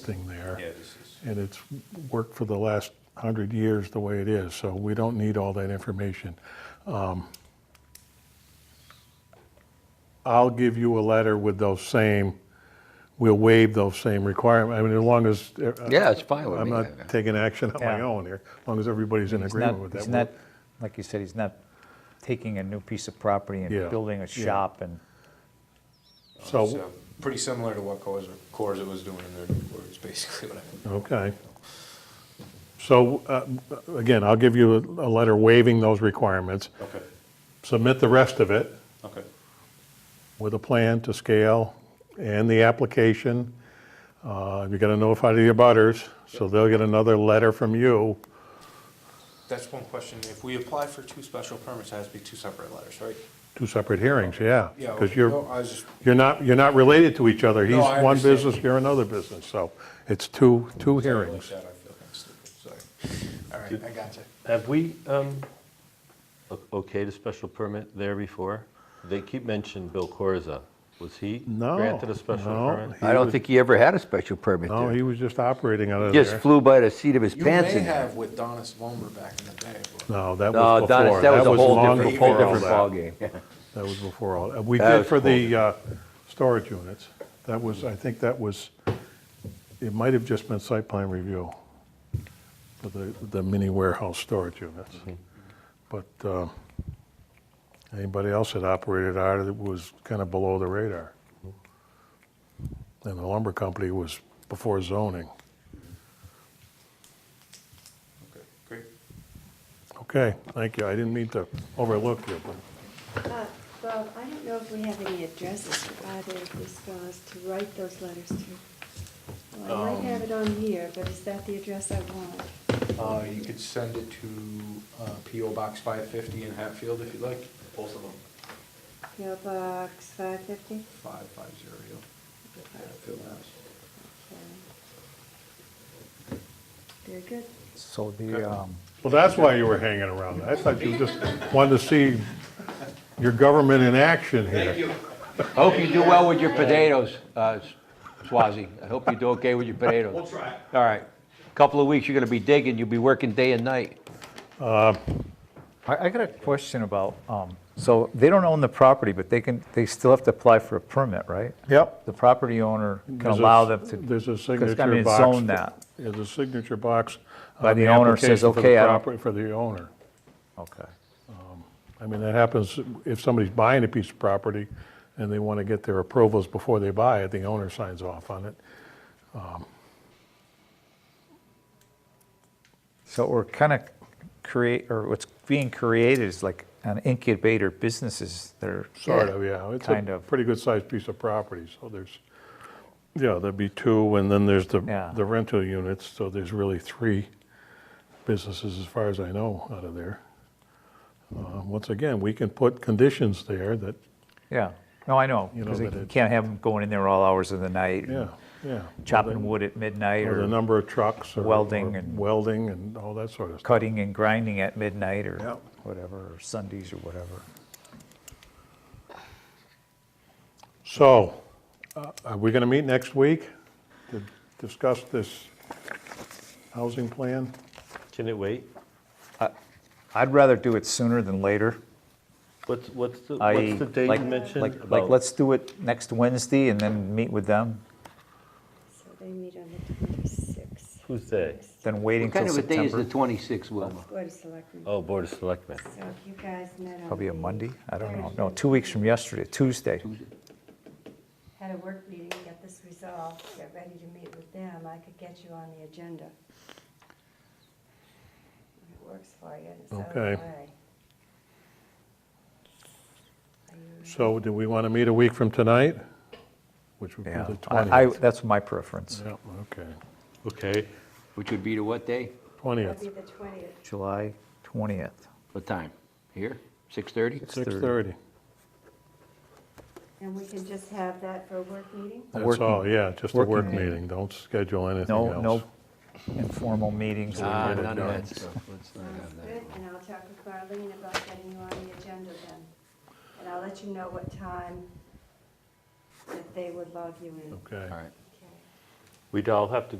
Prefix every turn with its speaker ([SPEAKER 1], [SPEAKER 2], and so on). [SPEAKER 1] existing there.
[SPEAKER 2] Yeah, this is,
[SPEAKER 1] And it's worked for the last hundred years the way it is, so we don't need all that information. Um, I'll give you a letter with those same, we'll waive those same requirements, I mean, as long as. uh,
[SPEAKER 3] Yeah, it's fine with
[SPEAKER 1] I'm
[SPEAKER 3] me.
[SPEAKER 1] not taking action on my
[SPEAKER 4] Yeah.
[SPEAKER 1] own here, as long as everybody's in
[SPEAKER 4] He's
[SPEAKER 1] agreement
[SPEAKER 4] not-
[SPEAKER 1] with
[SPEAKER 4] he's
[SPEAKER 1] that.
[SPEAKER 4] not- Like you said, he's not taking a new piece of property
[SPEAKER 1] Yeah,
[SPEAKER 4] and building a
[SPEAKER 1] yeah.
[SPEAKER 4] shop and,
[SPEAKER 1] So,
[SPEAKER 2] so, pretty similar to what Coors, Coors was doing in their new quarters, basically what I.
[SPEAKER 1] okay. So, uh, again, I'll give you a a letter waiving those requirements,
[SPEAKER 2] Okay,
[SPEAKER 1] submit the rest of it.
[SPEAKER 2] okay.
[SPEAKER 1] with a plan to scale and the application. Uh, You're going to notify the abutters, so they'll get another letter from you.
[SPEAKER 2] That's one question. If we apply for two special permits, it has to be two separate letters, right?
[SPEAKER 1] Two separate hearings, yeah.
[SPEAKER 2] Yeah,
[SPEAKER 1] Because
[SPEAKER 2] okay. No,
[SPEAKER 1] you're,
[SPEAKER 2] I was just-
[SPEAKER 1] you're not, you're not related to each other.
[SPEAKER 2] No,
[SPEAKER 1] He's
[SPEAKER 2] I
[SPEAKER 1] one
[SPEAKER 2] understand.
[SPEAKER 1] business, you're another business, so it's two, two
[SPEAKER 2] Sorry, I looked
[SPEAKER 1] hearings.
[SPEAKER 2] at it, I feel kind of stupid, sorry. All right, I got you.
[SPEAKER 5] Have we um, o- okayed a special permit there before? They keep mentioning Bill Corza. Was he
[SPEAKER 1] No,
[SPEAKER 5] granted a special
[SPEAKER 1] no,
[SPEAKER 5] permit?
[SPEAKER 1] he
[SPEAKER 3] I don't
[SPEAKER 1] was-
[SPEAKER 3] think he ever had a special permit
[SPEAKER 1] No, he
[SPEAKER 3] there.
[SPEAKER 1] was just operating out of
[SPEAKER 3] Just
[SPEAKER 1] there.
[SPEAKER 3] flew by the seat of his
[SPEAKER 2] You
[SPEAKER 3] pants.
[SPEAKER 2] may
[SPEAKER 3] in there.
[SPEAKER 2] have with Donis Vollmer back in the day. but-
[SPEAKER 1] No, that was
[SPEAKER 3] No, Dennis,
[SPEAKER 1] before.
[SPEAKER 3] uh, that was a whole
[SPEAKER 1] long
[SPEAKER 3] different,
[SPEAKER 1] before
[SPEAKER 3] whole
[SPEAKER 1] all
[SPEAKER 3] different
[SPEAKER 1] that.
[SPEAKER 3] ballgame.
[SPEAKER 1] That was before all, we
[SPEAKER 3] That
[SPEAKER 1] did
[SPEAKER 3] was
[SPEAKER 1] for the uh, storage units. That was, I think that was, it might have just been site plan review for the, the mini warehouse storage units.
[SPEAKER 3] Mm-hmm.
[SPEAKER 1] But uh, anybody else that operated out of it was kind of below the radar. And the lumber company was before zoning.
[SPEAKER 2] Okay, Great.
[SPEAKER 1] Okay, thank you. I didn't mean to overlook you, but.
[SPEAKER 6] Uh, Bob, I don't know if we have any addresses for either of these fellows to write those letters to. Well, I might have it on here, but is that the address I want?
[SPEAKER 2] Uh, you could send it to, uh, PO Box five fifty in Hatfield if you'd like. Both of them.
[SPEAKER 6] PO Box 550?
[SPEAKER 2] Five, five zero. Hatfield, Mass.
[SPEAKER 6] Okay. Very good.
[SPEAKER 4] so the, um,
[SPEAKER 1] Well, that's why you were hanging around. I thought you just wanted to see your government in action here.
[SPEAKER 3] I hope you do well with your potatoes, uh, Swazi. I hope you do okay with your potatoes. We'll try. All right. Couple of weeks, you're gonna be digging. You'll be working day and night.
[SPEAKER 4] I, I got a question about, um, so they don't own the property, but they can, they still have to apply for a permit, right?
[SPEAKER 1] Yep.
[SPEAKER 4] The property owner can
[SPEAKER 1] There's a-
[SPEAKER 4] allow them to.
[SPEAKER 1] There's a
[SPEAKER 4] 'cause, I
[SPEAKER 1] signature
[SPEAKER 4] mean,
[SPEAKER 1] box.
[SPEAKER 4] it's zoned that,
[SPEAKER 1] There's a signature box.
[SPEAKER 4] By
[SPEAKER 1] on
[SPEAKER 4] the owner says,
[SPEAKER 1] application for the
[SPEAKER 4] "Okay, I don't-"
[SPEAKER 1] property- For the owner.
[SPEAKER 4] okay.
[SPEAKER 1] I mean, that happens if somebody's buying a piece of property and they want to get their approvals before they buy it, the owner signs off on it.
[SPEAKER 4] So we're kind of create, or what's being created is like an incubator businesses that are.
[SPEAKER 1] Sort of, yeah. It's
[SPEAKER 4] Kind
[SPEAKER 1] a
[SPEAKER 4] of.
[SPEAKER 1] pretty good-sized piece of property, so there's, yeah, there'd be two, and then there's the,
[SPEAKER 4] Yeah.
[SPEAKER 1] the rental units, so there's really three businesses, as far as I know, out of there. Uh, Once again, we can put conditions there that,
[SPEAKER 4] Yeah, no, I know,
[SPEAKER 1] You know,
[SPEAKER 4] because you
[SPEAKER 1] but it-
[SPEAKER 4] can't have them going in there all hours of the night.
[SPEAKER 1] yeah, yeah.
[SPEAKER 4] Chopping wood at midnight
[SPEAKER 1] Or the
[SPEAKER 4] or
[SPEAKER 1] number of trucks. or-
[SPEAKER 4] Welding
[SPEAKER 1] or
[SPEAKER 4] and-
[SPEAKER 1] Welding and all that sort of stuff.
[SPEAKER 4] cutting and grinding at midnight or
[SPEAKER 1] Yep.
[SPEAKER 4] whatever, or Sundays or whatever.
[SPEAKER 1] So, uh, are we going to meet next week to discuss this housing plan?
[SPEAKER 5] Can it wait?
[SPEAKER 4] I'd rather do it sooner than later.
[SPEAKER 5] What's, what's the,
[SPEAKER 4] I-
[SPEAKER 5] what's the date you
[SPEAKER 4] like-
[SPEAKER 5] mentioned
[SPEAKER 4] like- Like,
[SPEAKER 5] about
[SPEAKER 4] let's do it next Wednesday and then meet with them,
[SPEAKER 6] So they meet on the 26th.
[SPEAKER 5] whose day?
[SPEAKER 4] then waiting
[SPEAKER 3] What kind
[SPEAKER 4] till
[SPEAKER 3] of a day is the
[SPEAKER 4] September.
[SPEAKER 3] 26th, Wilma?
[SPEAKER 6] Board of Selectmen.
[SPEAKER 5] Oh, Board of Selectmen.
[SPEAKER 6] So if you guys met on.
[SPEAKER 4] Probably a
[SPEAKER 6] the
[SPEAKER 4] Monday, I don't know, no,
[SPEAKER 6] Thursday,
[SPEAKER 4] two weeks from yesterday, Tuesday.
[SPEAKER 6] Had a work meeting, got this resolved, got ready to meet with them, I could get you on the agenda. If It works for you, and it's out of the
[SPEAKER 1] Okay.
[SPEAKER 6] way. Are you-
[SPEAKER 1] So do we want to meet a week from tonight? Which would be
[SPEAKER 4] Yeah,
[SPEAKER 1] the
[SPEAKER 4] I, I-
[SPEAKER 1] 20th.
[SPEAKER 4] that's my preference,
[SPEAKER 1] Yeah, okay.
[SPEAKER 5] Okay.
[SPEAKER 3] Which would be to what day?
[SPEAKER 6] That'd be
[SPEAKER 1] 20th,
[SPEAKER 6] the twentieth.
[SPEAKER 4] July 20th.
[SPEAKER 3] What time? Here? 6:30?
[SPEAKER 1] 6:30.
[SPEAKER 6] And we can just have that for a work meeting?
[SPEAKER 1] That's
[SPEAKER 4] working-
[SPEAKER 1] all, yeah, just a work
[SPEAKER 4] working meeting.
[SPEAKER 1] meeting. Don't schedule anything
[SPEAKER 4] No,
[SPEAKER 1] else.
[SPEAKER 4] no informal meetings.
[SPEAKER 3] Ah,
[SPEAKER 1] get it
[SPEAKER 3] none of
[SPEAKER 1] done.
[SPEAKER 3] that stuff. Let's not
[SPEAKER 6] Sounds
[SPEAKER 3] have that.
[SPEAKER 6] good, and I'll talk with Marlene about getting you on the agenda then. And I'll let you know what time that they would log you in.
[SPEAKER 1] Okay.
[SPEAKER 3] All right.
[SPEAKER 6] Okay.
[SPEAKER 5] We'd all have to